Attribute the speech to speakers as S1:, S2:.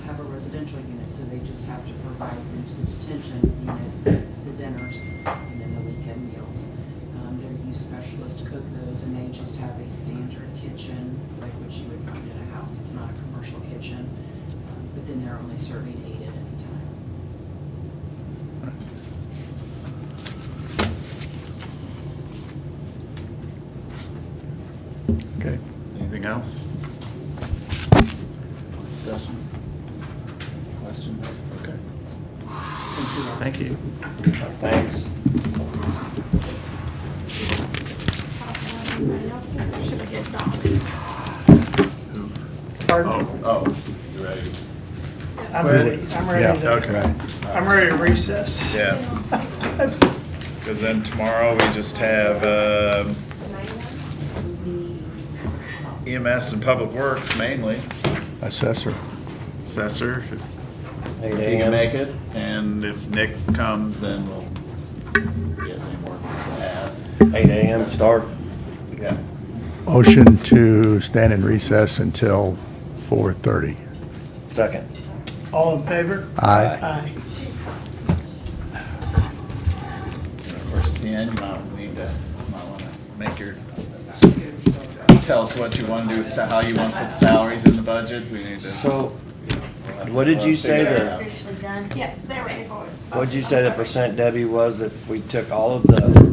S1: residential unit, so they just have to provide them to the detention unit, the dinners, and then the weekend meals. Um, Their youth specialists cook those, and they just have a standard kitchen, like what you would find in a house. It's not a commercial kitchen, um, but then they're only serving eight at any time.
S2: Okay.
S3: Anything else? Discussion? Questions? Okay. Thank you.
S4: Thanks.
S5: Everybody else's, or should we get Dawn?
S3: Oh,
S2: Pardon?
S3: oh, you ready?
S2: I'm ready, I'm ready
S3: Yeah, okay.
S2: to, I'm ready to recess.
S3: Yeah, because then tomorrow we just have um, EMS E and Public Works mainly,
S2: Assessor.
S3: assessor, if
S4: Hey,
S3: he
S4: Dan.
S3: can make it, and if Nick comes, then we'll get some work for that.
S4: Eight AM start.
S3: Yeah.
S2: Motion to stand in recess until 4:30.
S4: Second.
S6: All in favor?
S2: Aye.
S6: Aye.
S3: And of course, at the end, you might need to, you might want to make your, tell us what you want to do, sa- how you want to put salaries in the budget, we need to.
S4: So, what did you say the-
S5: Yes, they're ready for it.
S4: what'd you say the percent Debbie was if we took all of the